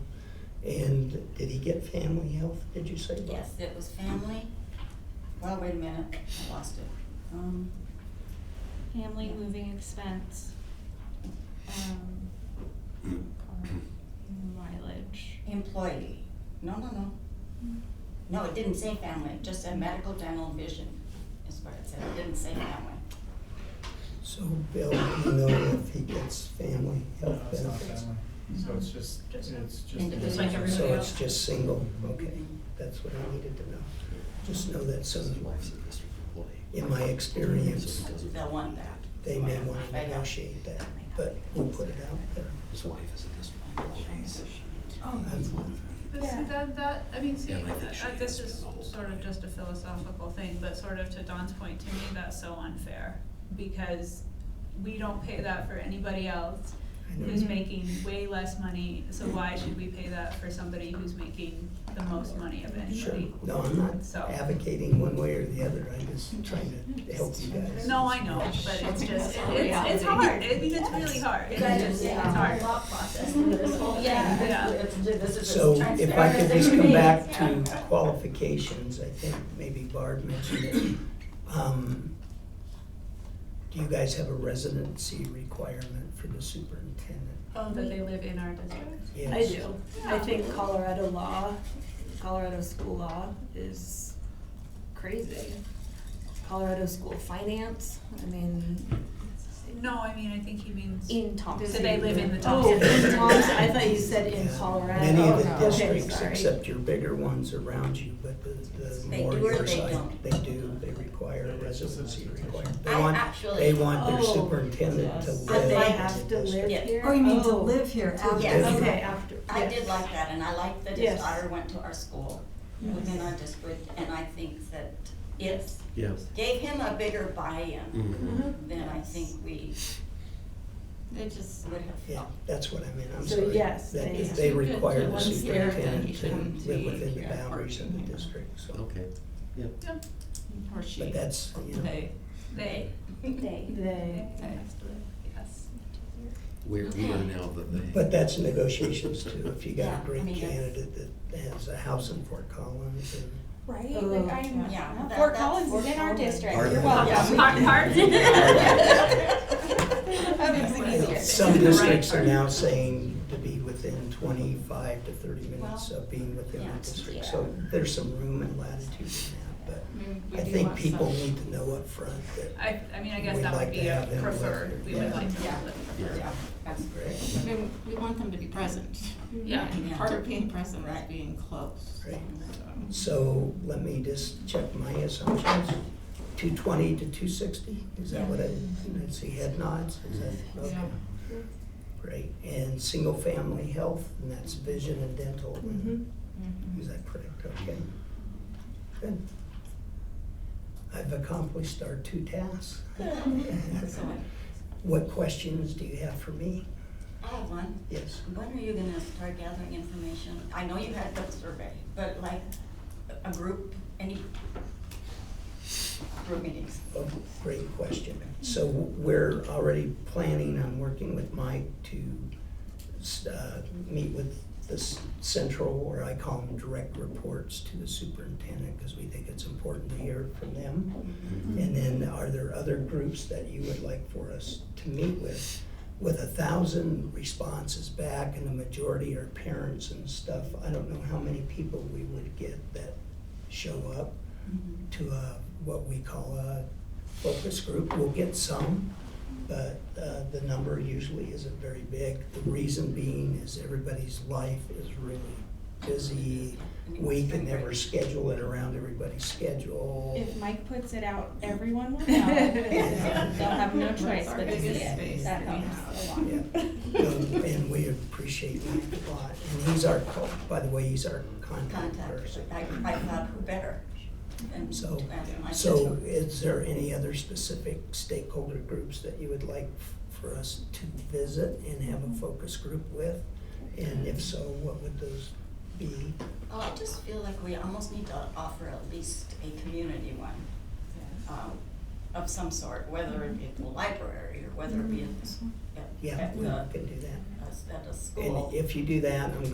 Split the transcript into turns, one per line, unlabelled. And did he get family health, did you say? Bob?
Yes, it was family. Well, wait a minute, I lost it. Um,
Family moving expense. um, car Mileage.
employee. No, no, no. Hmm. No, it didn't say family, it just said medical, dental, and vision is what it said. It didn't say family.
So Bill, do you know if he gets family
No,
health
it's not
benefits?
family. So it's just, it's
Just
just.
It's like everybody
So it's just single, okay,
Mhm.
that's what I needed to know. Just know that
This
some,
is wife's a district employee.
in my experience,
So he doesn't-
They'll want that.
they may want to
I know.
negotiate that, but we'll put it out there.
His wife is a district employee. so she-
Oh,
I'm-
But
Yeah.
see, that, that, I mean, see,
Yeah, I think she
uh, this
has
is
been all
sort of
right.
just a philosophical thing, but sort of to Don's point, to me, that's so unfair. Because we don't pay that for anybody else
I know. Mm-hmm.
who's making way less money, so why should we pay that for somebody who's making the most money of
Sure,
anybody?
no, I'm not
So-
advocating one way or the other, I'm just trying to help you guys.
No, I know, but it's just, it- it's, it's hard, I mean, it's really hard, it's just, it's hard.
thought process through this whole thing.
Yeah.
This is- this is as
So if I
transparent
could
as it
just
can
come
be.
back to qualifications, I think maybe Barb mentioned it. Um, Do you guys have a residency requirement for the superintendent?
Oh, that they live in our district?
I
Yes.
do. I think Colorado law, Colorado school law is crazy. Colorado school finance, I mean,
No, I mean, I think he means, do
in Thompson.
they live in the top
Oh,
city?
in Thompson, I thought you said in
Yeah.
Colorado.
Many of
Okay,
the districts,
sorry.
except your bigger ones around you, but the, the
They
more
do or
your
they
side,
don't?
they do, they require a residency requirement. They
I
want,
actually-
they want their
Oh,
superintendent
yes.
to live.
But
But they
like-
in
have to
the
live
district.
here?
Oh, you mean to
Oh.
live here after?
Yes.
Okay, after,
I did
yes.
like that, and I liked that his
Yes.
daughter went to our school within our district, and I think that it
Yes.
gave him a bigger buy-in
Mhm.
Mm.
Mm-hmm.
than I think we
They just,
would have
Yeah,
felt.
that's what I meant, I'm
So
sorry.
yes,
That
they-
if they require the
Once they're done,
superintendent
you
to
come to
live within the
your
boundaries of the
apartment.
district, so.
Okay.
or she,
But that's, you know,
they,
They,
They.
They,
they.
yes.
We're, we are now the they.
but that's negotiations too, if you
Yeah,
got
I
a great
mean, that's-
candidate that has a house in Fort Collins and.
Right,
Oh,
like I'm,
yeah.
Yeah,
no,
that-
Fort
that's
Collins
Fort
is in our
Collins.
district,
Are
you're
they?
welcome.
Hard- hard.
That makes it
you know,
easier.
Some
Right.
districts are now saying to be within twenty-five to thirty minutes
Well,
of being within
yeah,
the district,
yeah.
so there's some room and latitude in that,
Mm, we
but I
do
think
want
people
some.
need to know upfront that,
I, I mean, I guess
We'd
that
like
would
to
be a
have them live
preferred,
here.
we would
Yeah.
like to
Yeah.
have it preferred,
Yeah,
yeah.
that's great.
right?
We, we want them to be present.
Yeah.
And Part of being present is
Right.
being close.
Right.
So.
So let me just check my assumptions. Two twenty to two sixty, is that what I, I see head nods, is that, okay.
Yeah.
Great, and single family health, and that's vision and dental,
mhm.
Mm-hmm.
is that correct, okay? Good. I've accomplished our two tasks.
Excellent.
What questions do you have for me?
I have one.
Yes,
When are you gonna start gathering information? I know you had the survey, but like a- a group, any group meetings?
oh, great question. So we're already planning on working with Mike to uh, meet with the s- central, or I call them direct reports to the superintendent, because we think it's important to hear from them. And then are there other groups that you would like for us to meet with? With a thousand responses back and the majority are parents and stuff, I don't know how many people we would get that show up to a, what we call a focus group. We'll get some, but uh, the number usually isn't very big. The reason being is everybody's life is really busy. We can never schedule it around everybody's schedule.
If Mike puts it out, everyone will know. They'll have no choice but to see it. That helps a lot.
Yeah. Um, And we appreciate Mike a lot. And he's our, co- by the way, he's our contact
Contact,
person.
I, I thought who better than to
So-
ask my
So
sister.
is there any other specific stakeholder groups that you would like f- for us to visit and have a focus group with? And if so, what would those be?
Oh, I just feel like we almost need to offer at least a community one, um, of some sort, whether it be at the library or whether it be at the, s- at,
Yeah,
at
we
the,
can do that.
at a school.
And if you do that, I'm